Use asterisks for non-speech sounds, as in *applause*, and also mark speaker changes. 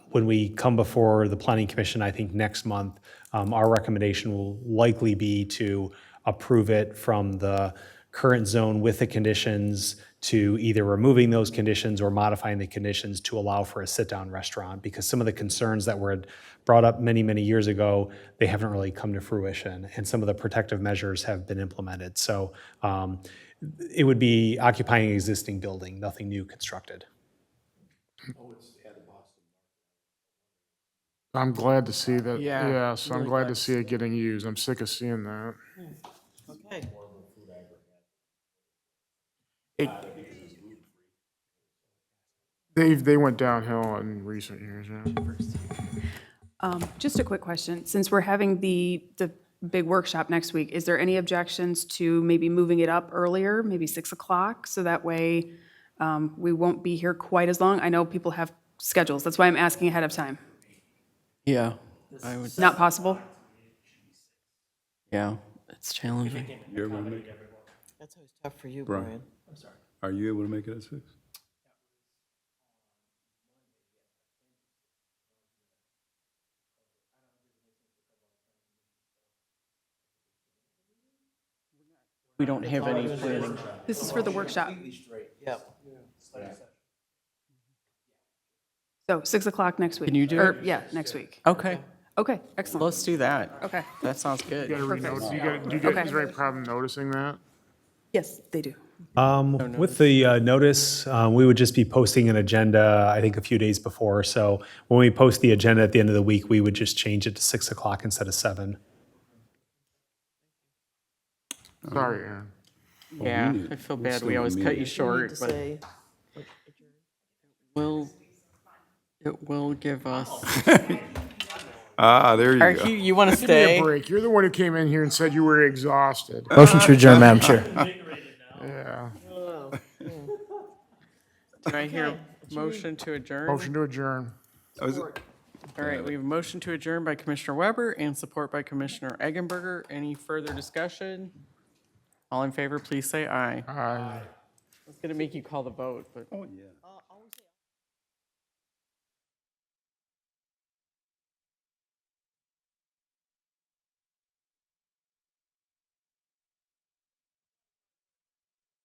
Speaker 1: when we come before the Planning Commission, I think next month, um, our recommendation will likely be to approve it from the current zone with the conditions to either removing those conditions or modifying the conditions to allow for a sit-down restaurant. Because some of the concerns that were brought up many, many years ago, they haven't really come to fruition. And some of the protective measures have been implemented. So um, it would be occupying an existing building, nothing new constructed.
Speaker 2: I'm glad to see that,
Speaker 3: Yeah,
Speaker 2: yeah, so I'm
Speaker 3: really
Speaker 2: glad
Speaker 3: glad
Speaker 2: to
Speaker 3: to
Speaker 2: see it getting used. I'm sick of seeing that.
Speaker 3: Okay.
Speaker 2: They, they went downhill in recent years, yeah.
Speaker 4: Um, Just a quick question. Since we're having the, the big workshop next week, is there any objections to maybe moving it up earlier, maybe 6 o'clock? So that way, um, we won't be here quite as long. I know people have schedules. That's why I'm asking ahead of time.
Speaker 3: Yeah, I would,
Speaker 4: Not possible?
Speaker 3: yeah, it's challenging.
Speaker 5: You're able to make,
Speaker 6: That's always tough for you,
Speaker 5: Brian.
Speaker 6: Brian.
Speaker 5: are you able to make it at six?
Speaker 3: We don't have any planning.
Speaker 4: This is for the workshop.
Speaker 6: Yep.
Speaker 4: So 6 o'clock next week?
Speaker 3: Can you do
Speaker 4: Or,
Speaker 3: it?
Speaker 4: yeah, next week.
Speaker 3: Okay,
Speaker 4: Okay, excellent.
Speaker 3: let's do that.
Speaker 4: Okay.
Speaker 3: That sounds
Speaker 2: You
Speaker 3: good.
Speaker 2: gotta
Speaker 4: Perfect.
Speaker 2: renotice, you gotta, do you guys
Speaker 4: Okay.
Speaker 2: have any problem noticing that?
Speaker 4: Yes, they do.
Speaker 1: Um, With the uh, notice, uh, we would just be posting an agenda, I think, a few days before. So when we post the agenda at the end of the week, we would just change it to 6 o'clock instead of 7.
Speaker 2: Sorry, Aaron.
Speaker 3: Yeah,
Speaker 5: need-
Speaker 3: I feel
Speaker 5: we
Speaker 3: bad.
Speaker 5: still
Speaker 3: We always
Speaker 5: need
Speaker 3: cut
Speaker 5: it.
Speaker 3: you
Speaker 6: Need
Speaker 3: short,
Speaker 6: to
Speaker 3: but
Speaker 6: say,
Speaker 3: will, it will give *laughs* us.
Speaker 5: Ah, there
Speaker 3: Are
Speaker 5: you go.
Speaker 3: you, you want to
Speaker 2: Give me a
Speaker 3: stay?
Speaker 2: break. You're the one who came in here and said you were exhausted.
Speaker 7: Motion to adjourn, Madam Chair.
Speaker 2: Yeah.
Speaker 3: Do I hear a motion to adjourn?
Speaker 2: Motion to adjourn.
Speaker 5: I was-
Speaker 3: All right, we have a motion to adjourn by Commissioner Weber and support by Commissioner Eggenberger. Any further discussion? All in favor, please say aye.
Speaker 2: Aye.
Speaker 3: It's going to make you call the vote, but.
Speaker 5: Oh, yeah.